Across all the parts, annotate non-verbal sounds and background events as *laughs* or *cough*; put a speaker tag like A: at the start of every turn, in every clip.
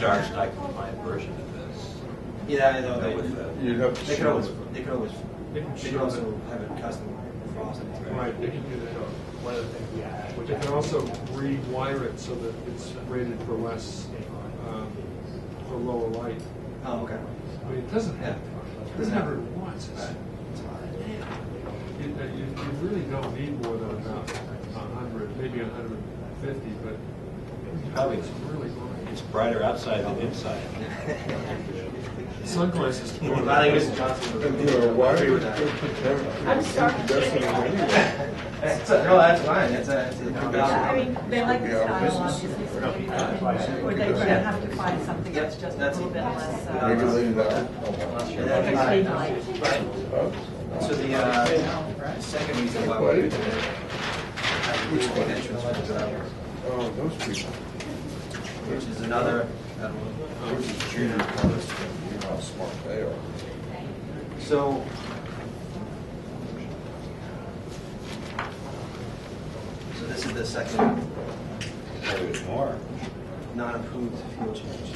A: charge type compliant version of this.
B: Yeah, I know,
A: With
B: they,
A: the-
C: You'd have to
B: they could
C: show
B: always,
C: it.
B: they could always,
D: They can
B: they could
D: show
B: also
D: it.
B: have it custom frosted.
D: Right, they can do that. One of the things we add. But they can also rewire it so that it's rated for less, um, for lower light.
B: Oh, okay.
D: I mean, it doesn't have,
B: Yeah.
D: it doesn't have what it wants. It's-
B: Right. It's *laughs* fine.
D: You, you you really don't need more than about a hundred, maybe a hundred and fifty, but
A: Probably.
D: it's really bright.
A: It's brighter outside than inside.
D: Sunglasses.
B: *laughs* I think Mr. Johnson would
C: And, you know, why?
B: agree with that.
E: I'm sorry.
C: Definitely anyway.
B: That's a- No, that's fine, it's a, it's a.
E: Yeah, I mean, they like the
C: Yeah,
E: style,
C: business.
E: obviously, so they can- or they would have to find something that's just a
B: That's-
E: little bit less. uh,
C: Maybe leave that.
B: And then,
E: Like
B: uh,
E: street light.
B: So the, uh, second reason why we.
C: Wait.
B: Which one? Entrance was without,
C: Oh, those people.
B: which is another, um, I don't know.
C: Those are junior college, you know how smart they are.
B: So. So this is the second
A: There's more.
B: non-approved fuel change.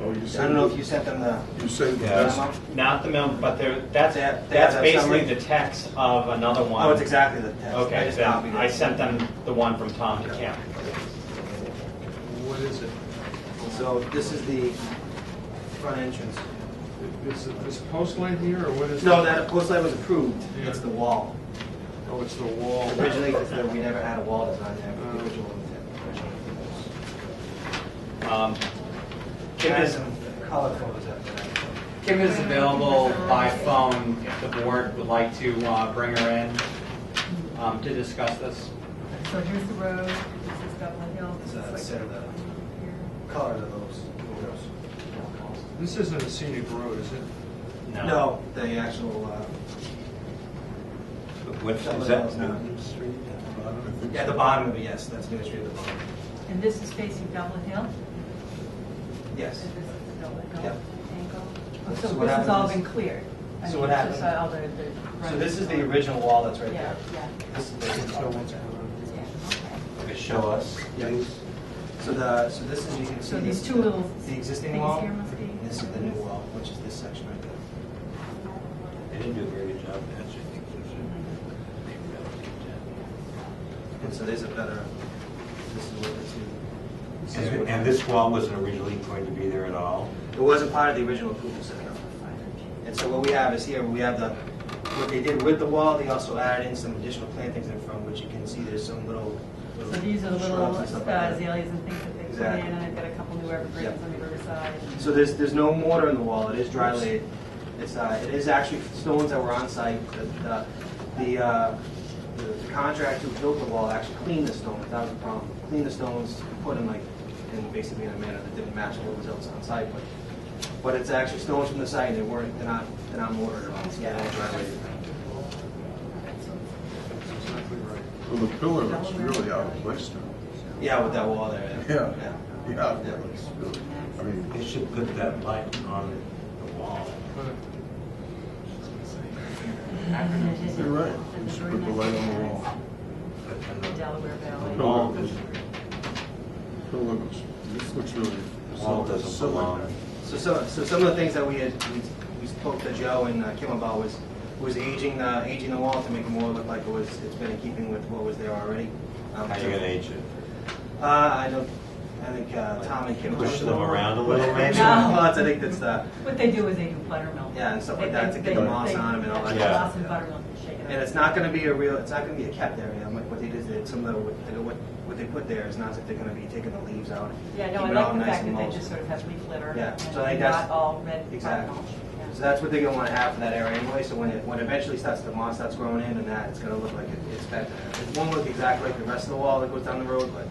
C: Oh, you
B: I
C: said.
B: don't know if you sent them the,
C: You said the best.
B: Yeah.
F: Not the memo, but there, that's,
B: They have- they
F: that's
B: have that
F: basically
B: summary?
F: the text of another one.
B: oh, it's exactly the text. I
F: Okay,
B: just copied
F: then
B: it.
F: I sent them the one from Tom to Kim.
D: What is it?
B: So this is the front entrance.
D: Is it this post light here or what is?
B: No,
D: it?
B: that post light was approved, it's the wall.
D: Oh, it's the wall.
B: Originally, it's that we never had a wall design there, but the original intent.
F: Um,
B: Kim
F: Kim
B: has
F: is,
B: some color photos up there.
F: Kim is available by phone if the board would like to uh, bring her in um, to discuss this.
E: So here's the road, this is Dublin Hill, this
B: It's, uh,
E: is like.
B: set of the-
E: here.
B: Color of those.
D: This isn't a scenic road, is it?
B: No, the actual, uh,
A: But What, is that Newton Street?
B: yeah, the bottom of it, yes, that's Main Street at the bottom.
E: And this is facing Dublin Hill?
B: Yes.
E: This is the Dublin Hill
B: Yep.
E: angle?
B: So
E: Oh, So
B: what
E: this has all been
B: happens-
E: cleared? I
B: So
E: mean,
B: what
E: it's just uh,
B: happens-
E: all the- the-
B: So this is the original wall that's right
E: Yeah,
B: there.
E: yeah,
B: This is the original wall.
E: yeah, okay.
A: Okay, Show us.
B: Yes. So the, so this is, you can see.
E: So these
B: this-
E: two little
B: The existing
E: things
B: wall,
E: here must be-
B: and this is the new wall, which is this section right there.
A: They didn't do a very good job answering things.
B: And so there's a better, this is what the two.
A: And and this wall wasn't originally going to be there at all?
B: It wasn't part of the original approval set up. And so what we have is here, we have the, what they did with the wall, they also added in some additional plantings in front, which you can see there's some little.
E: So these are the little
B: shrubs
E: uh,
B: and stuff like that.
E: azaleas and things that they put in,
B: Exactly.
E: and I've got a couple new evergreens
B: Yep.
E: on the riverside.
B: So there's, there's no mortar in the wall, it is dry laid. It's, uh, it is actually stones that were on site. The- The, the, uh, the contractor who built the wall actually cleaned the stones, that was the problem. Cleaned the stones, put them like, in basically in a manner that didn't match what was else on site, but, but it's actually stones from the site, they weren't, they're not, they're not mortared at all, so they're all dry laid.
D: That's exactly right.
C: Well, the pillar looks really out of place now.
B: Yeah, with that wall there.
C: Yeah, yeah, out of place, really. I mean,
A: They should put that light on the wall.
D: But
C: you're right, you should put the light on the wall.
A: But then the-
E: Delaware
C: The
E: Valley.
C: Pillar looks, pillar looks, this looks really.
A: the Wall doesn't
C: silly.
A: belong.
B: So, so, so some of the things that we had, we- we spoke to Joe and uh, Kim about was, was aging, uh, aging the wall to make it more look like it was, it's been in keeping with what was there already. Um,
A: How are you going to age it?
B: Uh, I don't, I think, uh, Tom and Kim.
A: Push them around a little bit?
B: *laughs*
E: No.
B: Well, that's- I think that's uh, the,
E: What they do is they do buttermilk.
B: Yeah, and stuff like
E: They-
B: that to
E: they-
B: get the
E: they-
B: moss
E: they-
B: on 'em and all that
E: Yeah,
A: stuff.
E: moss and buttermilk and shake it
B: and
E: up.
B: it's not gonna be a real, it's not gonna be a kept area, like what they did, they- some of the, what, what- what they put there is not that they're gonna be taking the leaves out.
E: Yeah, no,
B: keep
E: I
B: it all
E: like the
B: nice
E: fact
B: and
E: that they
B: mulched.
E: just sort of have leaf litter
B: Yeah,
E: and
B: so I think that's-
E: not all red
B: Exactly.
E: buttermilk. Yeah.
B: So that's what they're gonna wanna have for that area anyway, so when it, when eventually starts, the moss starts growing in and that, it's gonna look like it- it's been there. It won't look exactly like the rest of the wall that goes down the road, but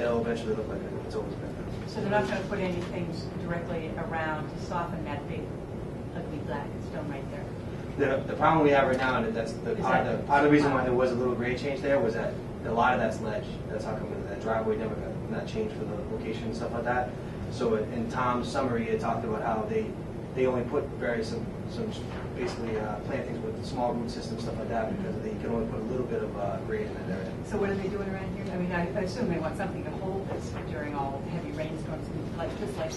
B: it'll eventually look like it's always been there.
E: So they're not going to put anything directly around to soften that big ugly black stone right there.
B: The, the problem we have right now, and that's the
E: Is
B: part,
E: that-
B: the, part of the reason why there was a little grade change there was that a lot of that's ledge. That's how come that driveway never got, that changed for the location and stuff like that. So in- in Tom's summary, it talked about how they, they they only put very some, some basically uh, plantings with small root systems, stuff like that, because they can only put a little bit of uh, grade in that area.
E: So what are they doing around here? I mean, I I assume they want something to hold this during all heavy rainstorms, like, just like